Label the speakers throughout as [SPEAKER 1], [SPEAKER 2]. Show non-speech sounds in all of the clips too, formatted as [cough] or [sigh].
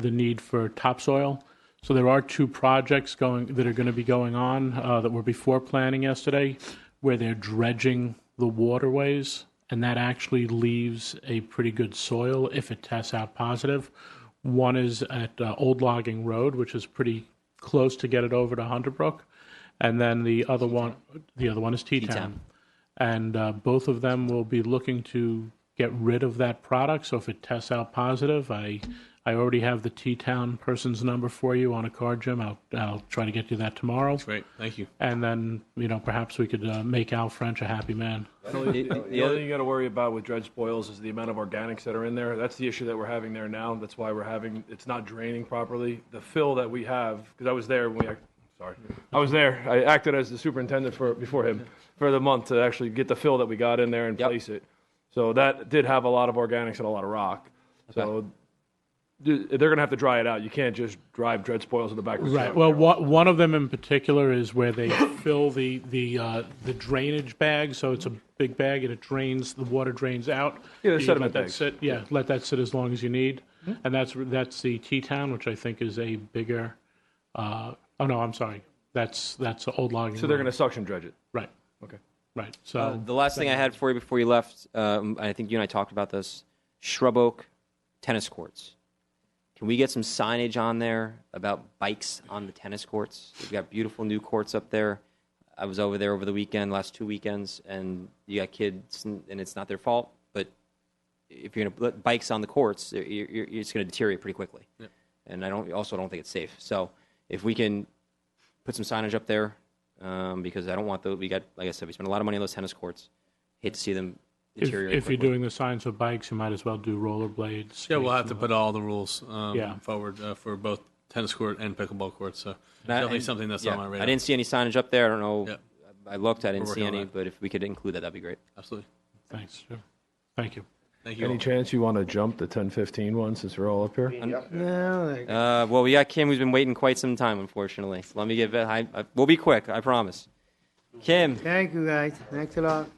[SPEAKER 1] the need for topsoil. So there are two projects going, that are going to be going on uh, that were before planning yesterday, where they're dredging the waterways, and that actually leaves a pretty good soil if it tests out positive. One is at uh, Old Logging Road, which is pretty close to get it over to Hunter Brook, and then the other one, the other one is T-Town. And uh, both of them will be looking to get rid of that product. So if it tests out positive, I, I already have the T-Town person's number for you on a card, Jim. I'll, I'll try to get you that tomorrow.
[SPEAKER 2] Great, thank you.
[SPEAKER 1] And then, you know, perhaps we could uh, make Al French a happy man.
[SPEAKER 2] The
[SPEAKER 3] the
[SPEAKER 2] the
[SPEAKER 3] other-
[SPEAKER 2] other thing you got to worry about with dredge spoils is the amount of organics that are in there. That's the issue that we're having there now. That's why we're having, it's not draining properly. The fill that we have, because I was there when we, act- sorry, I was there. I acted as the superintendent for, before him, for the month to actually get the fill that we got in there and
[SPEAKER 3] Yep.
[SPEAKER 2] place it. So that did have a lot of organics and a lot of rock. So th- they're going to have to dry it out. You can't just drive dredge spoils in the back. of the
[SPEAKER 1] Right.
[SPEAKER 2] truck.
[SPEAKER 1] Well, one, one of them in particular is where they [coughs] fill the the uh, the drainage bag, so it's a big bag and it drains the water drains out.
[SPEAKER 2] Yeah, they're
[SPEAKER 1] You
[SPEAKER 2] sediment
[SPEAKER 1] let that
[SPEAKER 2] bags.
[SPEAKER 1] sit. Yeah, let that sit as long as you need, and that's that's the T town, which I think is a bigger. Uh, oh no, I'm sorry. That's that's the old logging.
[SPEAKER 2] So they're going to suction dredge it.
[SPEAKER 1] right,
[SPEAKER 2] Okay.
[SPEAKER 1] right. So
[SPEAKER 3] Uh, the last thing I had for you before you left, um, I think you and I talked about this shrub oak tennis courts. Can we get some signage on there about bikes on the tennis courts? We've got beautiful new courts up there. I was over there over the weekend, last two weekends, and you got kids, and, and it's not their fault. But if you're going to put bikes on the courts, you're, you're, you're- it's going to deteriorate pretty quickly. And I don't also don't think it's safe. So if we can put some signage up there um, because I don't want the we got like I said we spent a lot of money on those tennis courts. Hate to see them
[SPEAKER 1] if,
[SPEAKER 3] deteriorate.
[SPEAKER 1] if you're
[SPEAKER 3] quickly.
[SPEAKER 1] doing the signs for bikes, you might as well do rollerblades.
[SPEAKER 4] Yeah, we'll have to
[SPEAKER 1] skates,
[SPEAKER 4] put all the rules um,
[SPEAKER 1] Yeah.
[SPEAKER 4] forward uh, for both tennis court and pickleball courts. So
[SPEAKER 3] And I-
[SPEAKER 4] definitely
[SPEAKER 3] and-
[SPEAKER 4] something that's
[SPEAKER 3] yeah,
[SPEAKER 4] on my radar.
[SPEAKER 3] I didn't see any signage up there. I don't know.
[SPEAKER 4] Yeah.
[SPEAKER 3] I looked. I didn't
[SPEAKER 4] We're
[SPEAKER 3] see
[SPEAKER 4] working on
[SPEAKER 3] any.
[SPEAKER 4] that.
[SPEAKER 3] But if we could include that, that'd be great.
[SPEAKER 4] Absolutely.
[SPEAKER 1] Thanks. Jim. Thank you.
[SPEAKER 4] Thank you.
[SPEAKER 2] Any
[SPEAKER 4] All.
[SPEAKER 2] chance you want to jump the 10-15 one since we're all up here?
[SPEAKER 3] Uh, well, we got Kim, who's been waiting quite some time, unfortunately. So let me get. I, I, we'll be quick. I promise. Kim,
[SPEAKER 5] Thank you, guys. Thanks a lot.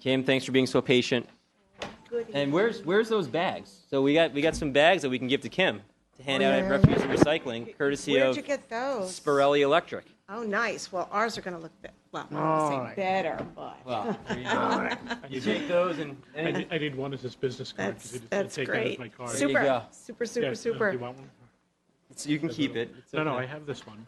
[SPEAKER 3] Kim, thanks for being so patient. And where's where's those bags? So we got we got some bags that we can give to Kim to hand out at refuse and recycling, courtesy
[SPEAKER 6] Oh, Where'd
[SPEAKER 3] of
[SPEAKER 6] you get those?
[SPEAKER 3] Spirelli Electric.
[SPEAKER 6] Oh, nice. Well, ours are going to look, be- well, I'm not gonna say better, but [laughs]
[SPEAKER 3] Well, [laughs] you take those and
[SPEAKER 1] I did, I did one as his business card. 'cause
[SPEAKER 6] that's,
[SPEAKER 1] he just said,
[SPEAKER 6] that's
[SPEAKER 1] "Take that as
[SPEAKER 6] great.
[SPEAKER 1] my card."
[SPEAKER 3] There you
[SPEAKER 6] Super,
[SPEAKER 3] go.
[SPEAKER 6] super,
[SPEAKER 1] Yeah,
[SPEAKER 6] super,
[SPEAKER 1] uh, Do
[SPEAKER 6] super.
[SPEAKER 1] you want one?
[SPEAKER 3] so you can keep it. It's
[SPEAKER 1] No, no, I
[SPEAKER 3] okay.
[SPEAKER 1] have this one.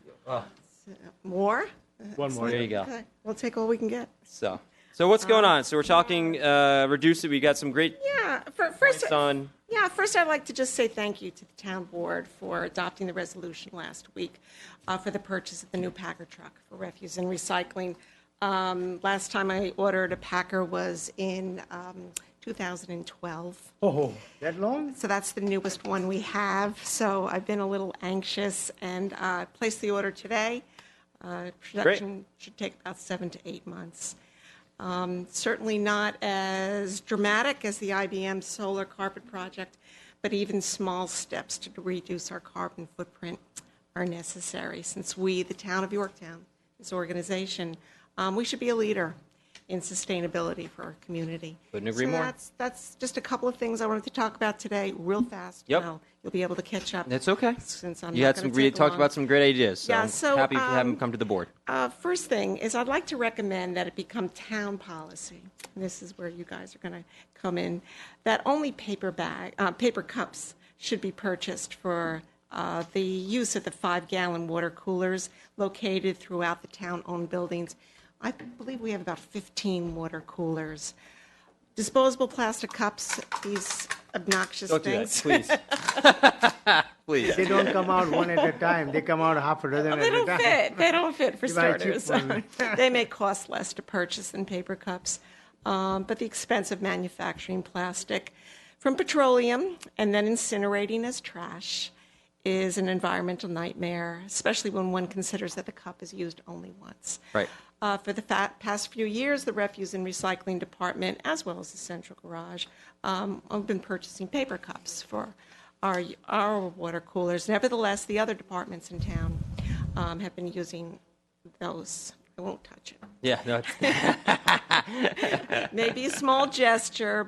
[SPEAKER 6] More?
[SPEAKER 1] One more.
[SPEAKER 3] There you go.
[SPEAKER 6] Okay, We'll take all we can get.
[SPEAKER 3] So, so what's
[SPEAKER 6] Um,
[SPEAKER 3] going on? So we're talking uh, reduce it. We got some great
[SPEAKER 6] Yeah, for, first,
[SPEAKER 3] points on.
[SPEAKER 6] yeah, first I'd like to just say thank you to the town board for adopting the resolution last week uh, for the purchase of the new Packer truck for refuse and recycling. Um, Last time I ordered a Packer was in um, 2012.
[SPEAKER 5] That long?
[SPEAKER 6] So that's the newest one we have. So I've been a little anxious and uh, placed the order today. Uh, Production should take about seven to eight months. Um, Certainly not as dramatic as the IBM solar carpet project, but even small steps to reduce our carbon footprint are necessary since we, the town of Yorktown, this organization, um, we should be a leader in sustainability for our community.
[SPEAKER 3] Couldn't agree
[SPEAKER 6] So
[SPEAKER 3] more.
[SPEAKER 6] that's- that's just a couple of things I wanted to talk about today, real fast.
[SPEAKER 3] Yep.
[SPEAKER 6] Now You'll be able to catch up.
[SPEAKER 3] That's okay.
[SPEAKER 6] Since I'm
[SPEAKER 3] you
[SPEAKER 6] not
[SPEAKER 3] had
[SPEAKER 6] gonna
[SPEAKER 3] some. We
[SPEAKER 6] take
[SPEAKER 3] talked
[SPEAKER 6] long.
[SPEAKER 3] about some great ideas. So
[SPEAKER 6] Yeah,
[SPEAKER 3] I'm
[SPEAKER 6] so,
[SPEAKER 3] happy to have them
[SPEAKER 6] um,
[SPEAKER 3] come to the board.
[SPEAKER 6] Uh, first thing is I'd like to recommend that it become town policy. and This is where you guys are going to come in. That only paper bag, uh, paper cups should be purchased for uh, the use of the five-gallon water coolers located throughout the town-owned buildings. I believe we have about 15 water coolers. Disposable plastic cups, these obnoxious
[SPEAKER 3] Don't do that,
[SPEAKER 6] things.
[SPEAKER 3] please. please. [laughs]
[SPEAKER 6] [laughs]
[SPEAKER 5] They don't come out one at a time. They come out half a dozen at
[SPEAKER 6] They
[SPEAKER 5] a
[SPEAKER 6] don't
[SPEAKER 5] time.
[SPEAKER 6] fit. They don't fit
[SPEAKER 5] [laughs]
[SPEAKER 6] for
[SPEAKER 5] You buy a cheap
[SPEAKER 6] starters.
[SPEAKER 5] one.
[SPEAKER 6] [laughs] they may cost less to purchase than paper cups, um, but the expense of manufacturing plastic from petroleum and then incinerating as trash is an environmental nightmare, especially when one considers that the cup is used only once.
[SPEAKER 3] Right.
[SPEAKER 6] Uh, for the fa- past few years, the Refuse and Recycling Department, as well as the Central Garage, um, have been purchasing paper cups for our, our water coolers. Nevertheless, the other departments in town um, have been using those I won't touch it.
[SPEAKER 3] Yeah, no, it's-
[SPEAKER 6] Maybe a small [laughs] gesture,